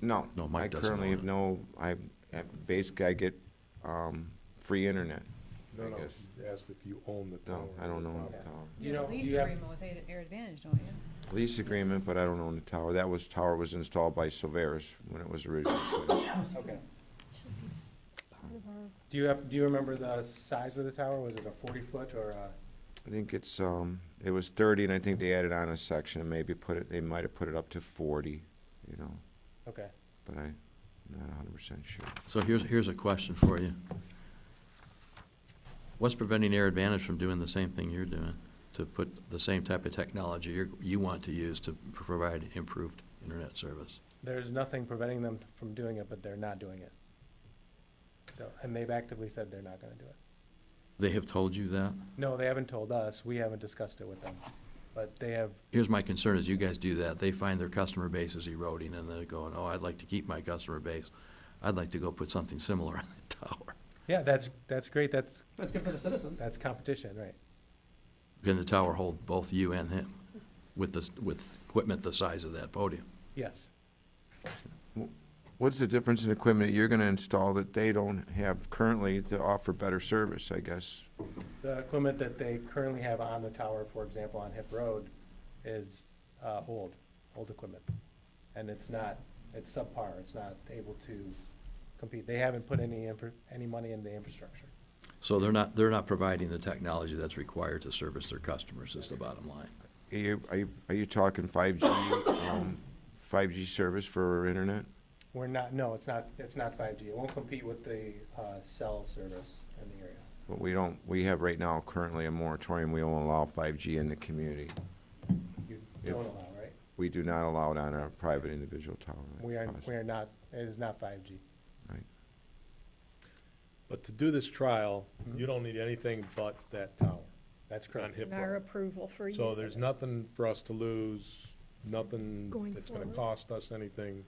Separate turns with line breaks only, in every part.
No.
No, Mike doesn't
I currently
own
have no, I, I- basically I get, um, free internet.
No,
I
no,
guess.
ask if you own the tower.
No, I don't own
Yeah.
the tower.
You know,
Lease
you have-
agreement with Air Air Advantage, don't you?
Lease agreement, but I don't own the tower. That was, tower was installed by Silveris when it was originally. put in.
Okay. Do you have, do you remember the size of the tower? Was it a forty foot or a?
I think it's, um, it was thirty and I think they added on a section and maybe put it, they might have put it up to forty, you know,
Okay.
but I, am not hundred percent sure.
So here's, here's a question for you. What's preventing Air Advantage from doing the same thing you're doing? To put the same type of technology you're, you want to use to provide improved internet service?
There's nothing preventing them from doing it, but they're not doing it. So, and they've actively said they're not gonna do it.
They have told you that?
No, they haven't told us. We haven't discussed it with them. But they have,
Here's my concern, is you guys do that, they find their customer base is eroding, and they're going, oh, I'd like to keep my customer base. I'd like to go put something similar on the tower.
yeah, that's, that's great. That's,
That's good for the citizens.
that's competition, right?
Can the tower hold both you and him with this, with equipment the size of that podium?
Yes.
What's the difference in equipment you're gonna install that they don't have currently to offer better service, I guess?
The equipment that they currently have on the tower, for example, on Hip Road, is, uh, old, old equipment. And it's not, it's subpar, it's not able to compete. They haven't put any infra, any money in the infrastructure.
So they're not, they're not providing the technology that's required to service their customers, is the bottom line.
Are you, are you, are you talking five G, um, five G service for internet?
We're not, no, it's not, it's not five G. It won't compete with the, uh, cell service in the area.
But we don't, we have right now currently a moratorium, we don't allow five G in the community.
You
Yep.
don't allow, right?
We do not allow it on a private individual tower. like
We are,
us.
we are not, it is not five G.
But to do this trial, you don't need anything but that tower
That's
on
correct.
Hip
Our
Road.
approval for use
So
of
there's
it.
nothing for us to lose, nothing
Going
that's gonna
forward.
cost us anything.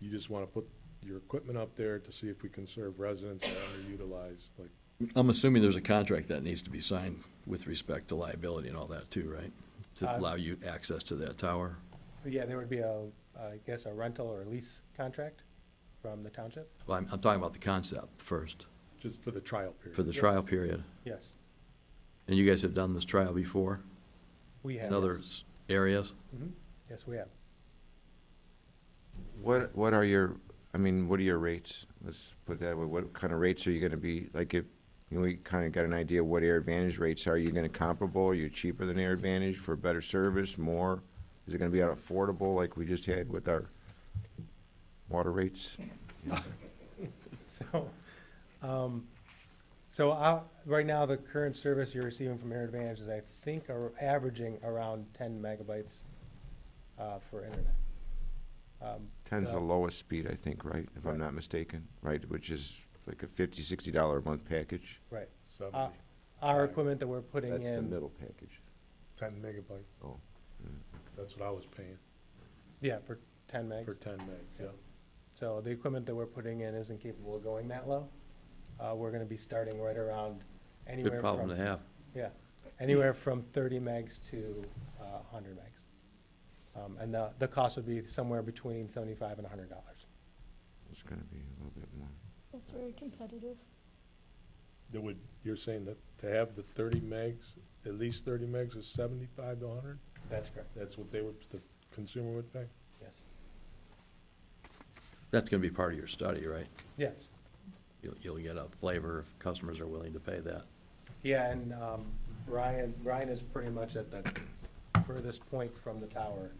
You just wanna put your equipment up there to see if we can serve residents that are underutilized, like,
I'm assuming there's a contract that needs to be signed with respect to liability and all that too, right? To
Uh,
allow you access to that tower?
But yeah, there would be a, I guess, a rental or lease contract from the township?
Well, I'm, I'm talking about the concept first,
just for the trial
for
period.
the trial
Yes.
period.
Yes,
And you guys have done this trial before
we have.
in other
yes.
s- areas?
Mhm. Yes, we have.
What, what are your, I mean, what are your rates? Let's put that way, what kind of rates are you gonna be, like, if, you know, we kinda got an idea what Air Advantage rates are, you gonna comparable, are you cheaper than Air Advantage for better service, more? Is it gonna be unaffordable like we just had with our water rates?
So, um, so I, right now, the current service you're receiving from Air Advantage is, I think, are averaging around ten megabytes, uh, for internet. Um,
Ten's the
Yeah.
lowest speed, I think, right, if I'm not mistaken, right, which is like a fifty, sixty dollar a month package?
Right. Uh,
Seventy,
Our
Right.
equipment that we're putting in.
That's the middle package.
ten megabyte,
Oh,
that's what I was paying,
Yeah, for ten
for
megs.
ten meg, yeah.
Yeah. So the equipment that we're putting in isn't capable of going that low. Uh, we're gonna be starting right around anywhere
Good
from.
problem to have.
Yeah, anywhere from thirty megs to, uh, hundred megs. Um, and the, the cost would be somewhere between seventy-five and hundred dollars.
it's gonna be a little bit more.
That's very competitive.
There would, you're saying that to have the thirty megs, at least thirty megs is seventy-five to hundred?
That's correct,
That's what they would, the consumer would pay?
yes.
That's gonna be part of your study, right?
Yes,
You'll, you'll get a flavor if customers are willing to pay that.
yeah, and, um, Ryan, Ryan is pretty much at the furthest point from the tower,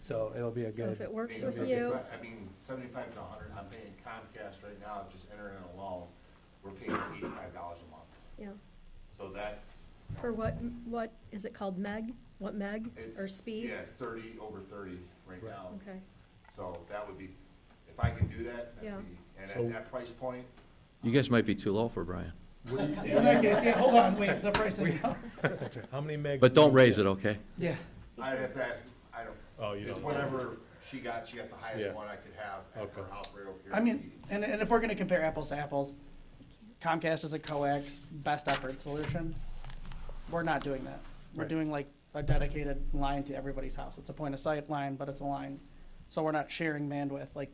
so it'll be a
So if it
good,
works with
Because
you,
if I I mean, seventy-five to hundred, I'm paying Comcast right now, just internet alone, we're paying eighty-five dollars a month.
yeah.
So that's.
For what, what, is it called meg? What meg or
it's-
speed?
Yeah, it's thirty over thirty right now.
Okay,
So that would be, if I can do that,
Yeah.
that'd be, and
So-
at that price point,
You guys might be too low for Brian,
In that case, yeah, hold on, wait, the price is down.
How many megs?
but don't raise it, okay?
Yeah.
I'd have to, ask- I don't.
Oh, you
It's
don't know.
whatever she got, she got the
Yeah.
highest one I could have at her
Okay.
house right over here.
I mean, and, and if we're gonna compare apples to apples, Comcast is a coax, best effort solution. We're not doing that. We're
Right.
doing like a dedicated line to everybody's house. It's a point of sight line, but it's a line. So we're not sharing bandwidth like